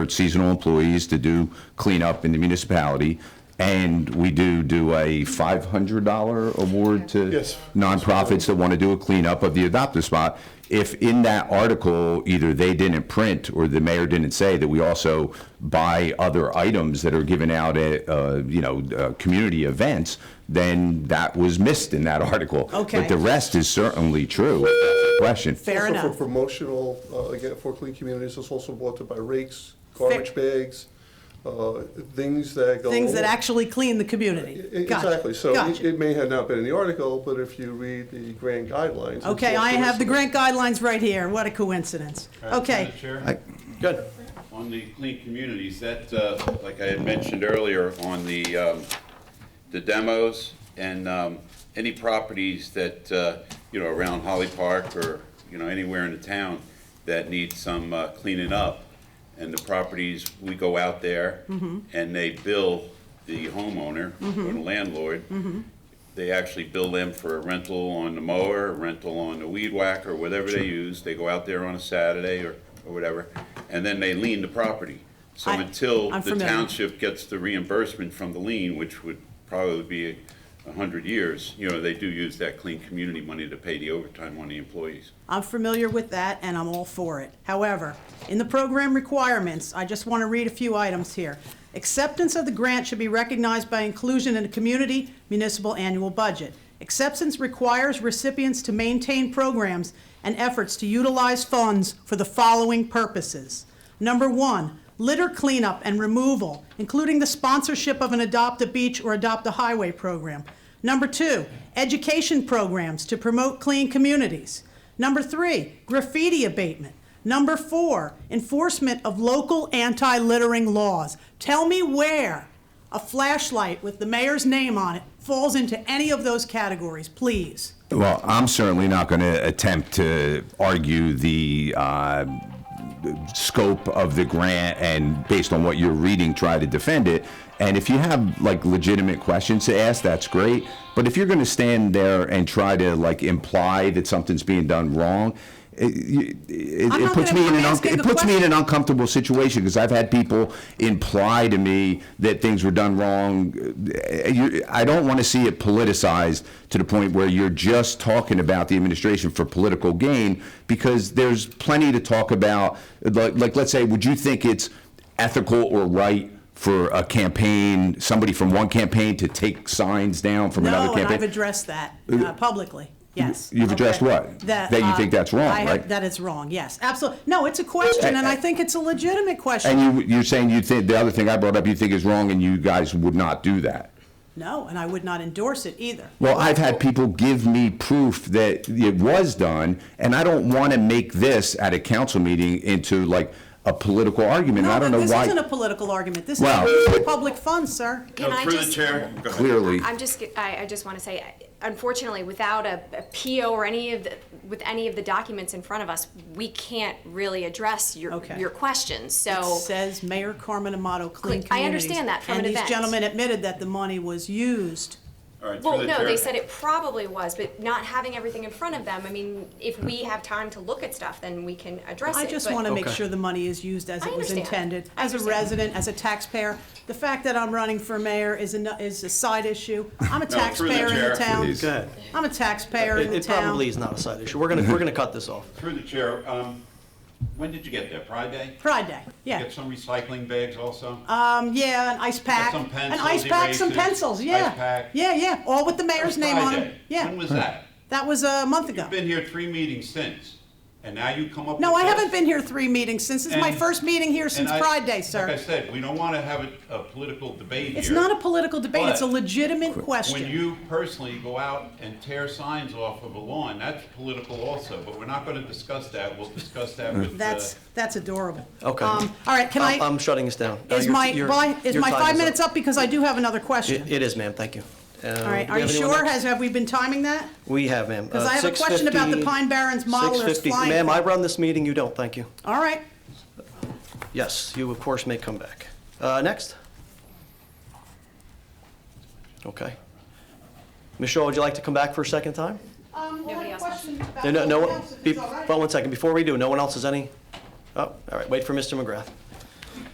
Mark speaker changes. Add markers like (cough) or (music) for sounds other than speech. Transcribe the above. Speaker 1: seasonal employees to do cleanup in the municipality, and we do do a $500 award to
Speaker 2: Yes.
Speaker 1: nonprofits that want to do a cleanup of the adopt-a-spot. If in that article, either they didn't print or the mayor didn't say that we also buy other items that are given out at, uh, you know, uh, community events, then that was missed in that article.
Speaker 3: Okay.
Speaker 1: But the rest is certainly true, if that's the question.
Speaker 3: Fair
Speaker 2: also
Speaker 3: enough.
Speaker 2: for promotional, uh, again, for clean communities, it's also brought to by rakes, garbage bags, uh, things that go.
Speaker 3: Things that actually clean the community.
Speaker 2: E-
Speaker 3: Gotcha.
Speaker 2: Exactly, so it-
Speaker 3: Gotcha.
Speaker 2: it may have not been in the article, but if you read the grand guidelines. it's
Speaker 3: Okay,
Speaker 2: also
Speaker 3: I have the
Speaker 2: listed.
Speaker 3: grant guidelines right here. What a coincidence. Okay.
Speaker 4: Madam Chair?
Speaker 1: Good.
Speaker 4: On the clean communities, that, uh, like I had mentioned earlier, on the, um, the demos and um, any properties that, uh, you know, around Holly Park or, you know, anywhere in the town that need some uh, cleaning up. And the properties, we go out there and they bill the homeowner or the landlord. They actually bill them for a rental on the mower, a rental on the weed whacker, whatever they use. They go out there on a Saturday or, or whatever, and then they lien the property. So
Speaker 3: I-
Speaker 4: until
Speaker 3: I'm
Speaker 4: the
Speaker 3: familiar.
Speaker 4: township gets the reimbursement from the lien, which would probably be a hundred years, you know, they do use that clean community money to pay the overtime on the employees.
Speaker 3: I'm familiar with that and I'm all for it. However, in the program requirements, I just want to read a few items here. Acceptance of the grant should be recognized by inclusion in a community municipal annual budget. Acceptance requires recipients to maintain programs and efforts to utilize funds for the following purposes. Number one, litter cleanup and removal, including the sponsorship of an Adopt a Beach or Adopt a Highway program. Number two, education programs to promote clean communities. Number three, graffiti abatement. Number four, enforcement of local anti littering laws. Tell me where a flashlight with the mayor's name on it falls into any of those categories, please.
Speaker 1: Well, I'm certainly not going to attempt to argue the uh, scope of the grant and based on what you're reading, try to defend it. And if you have like legitimate questions to ask, that's great. But if you're going to stand there and try to like imply that something's being done wrong, it, it,
Speaker 3: I'm
Speaker 1: it
Speaker 3: not
Speaker 1: puts
Speaker 3: gonna-
Speaker 1: me in
Speaker 3: I'm
Speaker 1: an unc
Speaker 3: asking
Speaker 1: it
Speaker 3: a
Speaker 1: puts me in
Speaker 3: question.
Speaker 1: an uncomfortable situation because I've had people imply to me that things were done wrong. Uh, you- I don't want to see it politicized to the point where you're just talking about the administration for political gain because there's plenty to talk about. Like, like let's say, would you think it's ethical or right? For a campaign, somebody from one campaign to take signs down from another
Speaker 3: No, and
Speaker 1: campaign.
Speaker 3: I've addressed that uh, publicly, yes.
Speaker 1: You've addressed
Speaker 3: Okay.
Speaker 1: what? That you
Speaker 3: uh,
Speaker 1: think that's wrong,
Speaker 3: I have-
Speaker 1: right?
Speaker 3: That it's wrong, yes, absolutely. No, it's a question, and I think it's a legitimate question.
Speaker 1: And you, you're saying you think, the other thing I brought up, you think is wrong, and you guys would not do that?
Speaker 3: No, and I would not endorse it either.
Speaker 1: Well, I've had people give me proof that it was done, and I don't want to make this at a council meeting into like a political argument. I
Speaker 3: No,
Speaker 1: don't know
Speaker 3: but this isn't a
Speaker 1: why,
Speaker 3: political argument. This
Speaker 1: Wow.
Speaker 3: is public funds, sir.
Speaker 5: Can I just,
Speaker 1: clearly.
Speaker 5: I'm just, g- I, I just want to say, unfortunately, without a, a PO or any of the, with any of the documents in front of us, we can't really address your,
Speaker 3: Okay.
Speaker 5: your questions, so.
Speaker 3: It says Mayor Carmen Amato Clean
Speaker 5: Oh. Clean-
Speaker 3: Communities.
Speaker 5: I understand that from an
Speaker 3: And
Speaker 5: event.
Speaker 3: these gentlemen admitted that the money was used.
Speaker 4: All right, through
Speaker 5: Well,
Speaker 4: the
Speaker 5: no,
Speaker 4: chair.
Speaker 5: they said it probably was, but not having everything in front of them, I mean, if we have time to look at stuff, then we can address it.
Speaker 3: I just
Speaker 5: but-
Speaker 3: want to make sure the money is used as
Speaker 5: I
Speaker 3: it was
Speaker 5: understand.
Speaker 3: intended.
Speaker 5: I
Speaker 3: As a
Speaker 5: understand.
Speaker 3: resident, as a taxpayer, the fact that I'm running for mayor is a, is a side issue.
Speaker 4: (laughs)
Speaker 3: I'm a
Speaker 4: through the
Speaker 3: taxpayer in the
Speaker 4: chair.
Speaker 3: town.
Speaker 6: Go ahead.
Speaker 3: I'm a taxpayer in
Speaker 6: It
Speaker 3: the
Speaker 6: it
Speaker 3: town.
Speaker 6: probably is not a side issue. We're gonna, we're gonna cut this off.
Speaker 4: Through the chair, um, when did you get there? Pride Day?
Speaker 3: Pride Day, yeah.
Speaker 4: Get some recycling bags also?
Speaker 3: Um, yeah, an ice pack.
Speaker 4: some
Speaker 3: An ice
Speaker 4: pencils,
Speaker 3: pack, some
Speaker 4: erasers,
Speaker 3: pencils,
Speaker 4: ice
Speaker 3: yeah.
Speaker 4: pack.
Speaker 3: Yeah, yeah, all with the mayor's name on
Speaker 4: Pride
Speaker 3: them.
Speaker 4: Day.
Speaker 3: Yeah,
Speaker 4: When was that?
Speaker 3: that was a month ago.
Speaker 4: Been here three meetings since, and now you come up with
Speaker 3: No, I
Speaker 4: this?
Speaker 3: haven't been here three meetings since. This is my
Speaker 4: And-
Speaker 3: first meeting here since
Speaker 4: And I-
Speaker 3: Pride Day,
Speaker 4: Like I
Speaker 3: sir.
Speaker 4: said, we don't want to have a, a political debate here.
Speaker 3: It's not a political debate, it's a
Speaker 4: But-
Speaker 3: legitimate question.
Speaker 4: When you personally go out and tear signs off of a lawn, that's political also, but we're not going to discuss that. We'll discuss that with. uh,
Speaker 3: That's, that's adorable.
Speaker 6: Okay.
Speaker 3: Um, All right, can
Speaker 6: I'm- I'm
Speaker 3: I,
Speaker 6: shutting this down. Uh,
Speaker 3: is
Speaker 6: your-
Speaker 3: my,
Speaker 6: your-
Speaker 3: bye- is
Speaker 6: your
Speaker 3: my
Speaker 6: time
Speaker 3: five
Speaker 6: is
Speaker 3: minutes up because I do have another question?
Speaker 6: It it is, ma'am, thank you. Uh,
Speaker 3: All right, are you sure? Has, have we been timing that?
Speaker 6: We have, ma'am.
Speaker 3: Because
Speaker 6: Uh,
Speaker 3: I have a question about the
Speaker 6: 6:50
Speaker 3: Pine Barrens modelers
Speaker 6: 6:50
Speaker 3: flying
Speaker 6: Ma'am, I
Speaker 3: thing.
Speaker 6: run this meeting, you don't, thank you.
Speaker 3: All right,
Speaker 6: Yes, you of course may come back. Uh, Next? Okay. Michelle, would you like to come back for a second time?
Speaker 5: Nobody else wants
Speaker 6: No, no, no, one- be- but one second, before we do, no one else has any? Oh, all right, wait for Mr. McGrath.